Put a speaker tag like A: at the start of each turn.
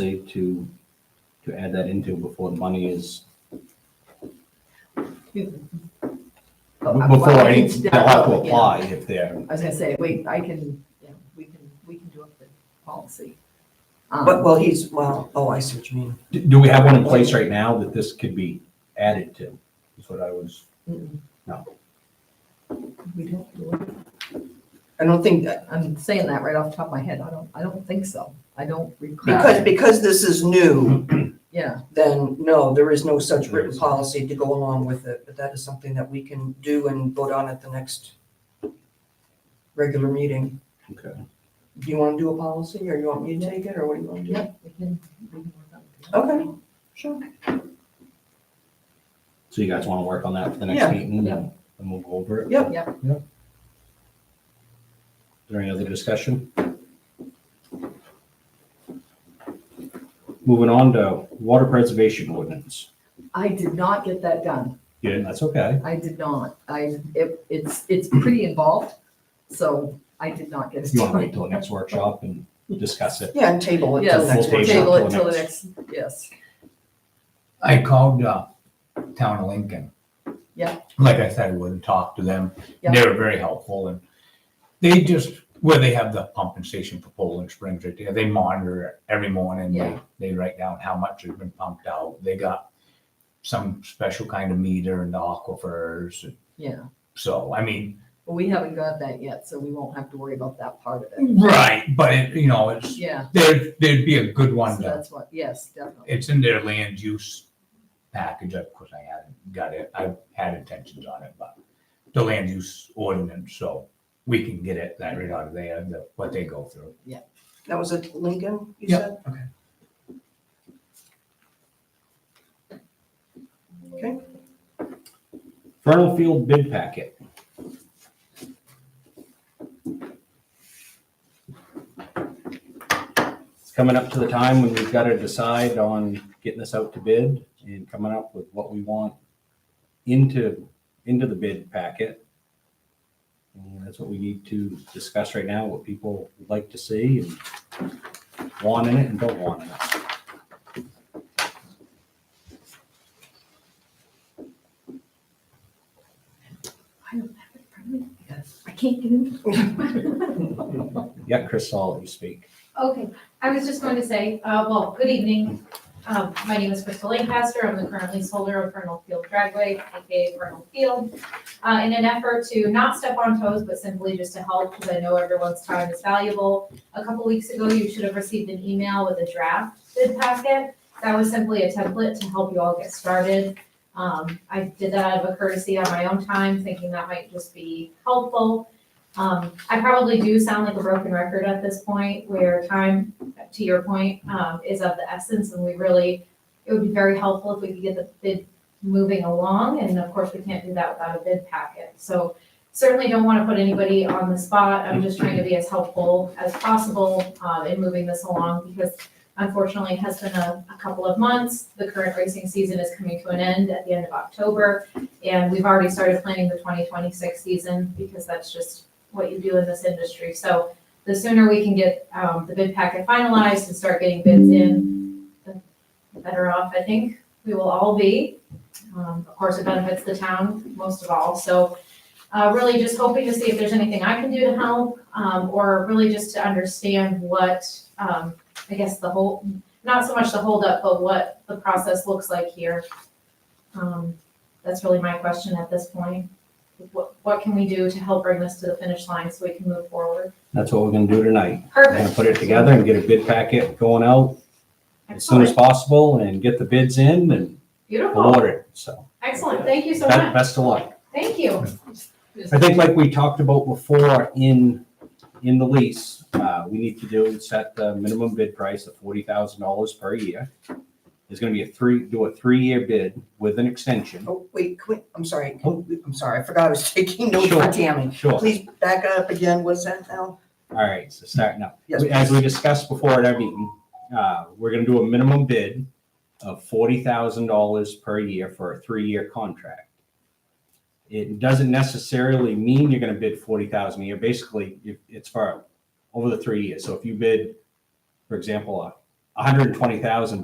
A: safe to, to add that into before the money is, before any, they'll have to apply if they're,
B: I was gonna say, wait, I can, yeah, we can, we can do up the policy. Um,
C: But, well, he's, well, oh, I see what you mean.
A: do do we have one in place right now that this could be added to? Is what I was,
B: mm-mm.
A: No.
B: We don't do it. I don't think, that- I'm saying that right off the top of my head, I don't, I don't think so, I don't
C: Because,
B: recall,
C: because this is new,
B: yeah,
A: Mm-hmm.
C: then no, there is no such written policy to go along with it, but that is something that we can do and vote on at the next regular meeting.
A: okay.
C: Do you want to do a policy or you want me to take it or what do you want to do?
B: yep, we can, we can work on it.
C: Okay, sure.
A: So you guys want to work on that for the
C: Yeah.
A: next meeting
B: Yeah.
A: and and move over it?
C: Yep.
B: Yep.
A: Is there any other discussion? Moving on to water preservation ordinance.
B: I did not get that done,
A: Yeah, that's okay.
B: I did not, I, it, it's, it's pretty involved, so I did not get it
A: You want to
B: done.
A: wait till the next workshop and discuss it?
C: Yeah, and table it till the
B: Yes,
C: next
A: We'll
C: workshop.
B: Table it till the next, yes.
D: I called, uh, Town of Lincoln.
B: Yeah.
D: Like I said, I would and talked to them.
B: Yeah.
D: They were very helpful and they just, where they have the pumping station for Poland Springs right there, they monitor it every morning. They,
B: Yeah.
D: they write down how much has been pumped out. They got some special kind of meter in the aquifers.
B: Yeah,
D: So, I mean,
B: well, we haven't got that yet, so we won't have to worry about that part of it.
D: Mm-hmm. right, but it, you know, it's,
B: Yeah,
D: there, there'd be a good
B: so
D: one to
B: that's what, yes, definitely.
D: it's in their land use package, of course, I haven't got it, I've had intentions on it, but the land use ordinance, so we can get it, that right out of there, the, what they go through.
C: That was at Lincoln, you
D: Yeah.
C: said?
D: Okay.
C: Okay,
A: Vernal Field bid packet. It's coming up to the time when we've got to decide on getting this out to bid and coming up with what we want into, into the bid packet. And that's what we need to discuss right now, what people would like to see and want in it and don't want in it.
B: I don't have it in front of me because I can't get in.
A: Yeah, Chris, I'll let you speak.
E: Okay, I was just going to say, uh, well, good evening. Um, my name is Crystal Lancaster. I'm the current leaseholder of Vernal Field Dragway, AKA Vernal Field. Uh, in an effort to not step on toes, but simply just to help, because I know everyone's time is valuable. A couple weeks ago, you should have received an email with a draft bid packet. That was simply a template to help you all get started. Um, I did that out of a courtesy on my own time, thinking that might just be helpful. Um, I probably do sound like a broken record at this point, where time, to your point, um, is of the essence, and we really, it would be very helpful if we could get the bid moving along, and of course, we can't do that without a bid packet, so certainly don't want to put anybody on the spot, I'm just trying to be as helpful as possible, um, in moving this along, because unfortunately, it has been a, a couple of months, the current racing season is coming to an end at the end of October, and we've already started planning the twenty twenty-six season, because that's just what you do in this industry. So the sooner we can get um, the bid packet finalized and start getting bids in, the better off I think we will all be. Um, Of course, it benefits the town most of all. So uh, really just hoping to see if there's anything I can do to help um, or really just to understand what, um, I guess, the whole, not so much the holdup, but what the process looks like here. Um, That's really my question at this point what, what can we do to help bring this to the finish line so we can move forward?
A: That's what we're gonna do tonight. We're gonna
E: Perfect.
A: put it together and get a bid packet going out as soon as
E: Excellent.
A: possible and get the bids in and
E: Beautiful.
A: award it, so.
E: Excellent. Thank you so
A: Best,
E: much.
A: best of luck.
E: Thank you.
A: I think like we talked about before in, in the lease, uh, we need to do is set the minimum bid price of forty thousand dollars per year. There's gonna be a three, do a three-year bid with an extension.
C: oh, wait, quit, I'm sorry,
A: Oh.
C: I'm sorry, I forgot I was taking notes for
A: Sure.
C: Tammy.
A: Sure. All
C: Please back up again, what's that now?
A: right, so starting up.
C: Yes,
A: As we discussed before at our meeting, uh, we're gonna do a minimum bid of forty thousand dollars per year for a three-year contract. It doesn't necessarily mean you're gonna bid forty thousand a year, basically, if, it's for, over the three years, so if you bid, for example, a, hundred and twenty thousand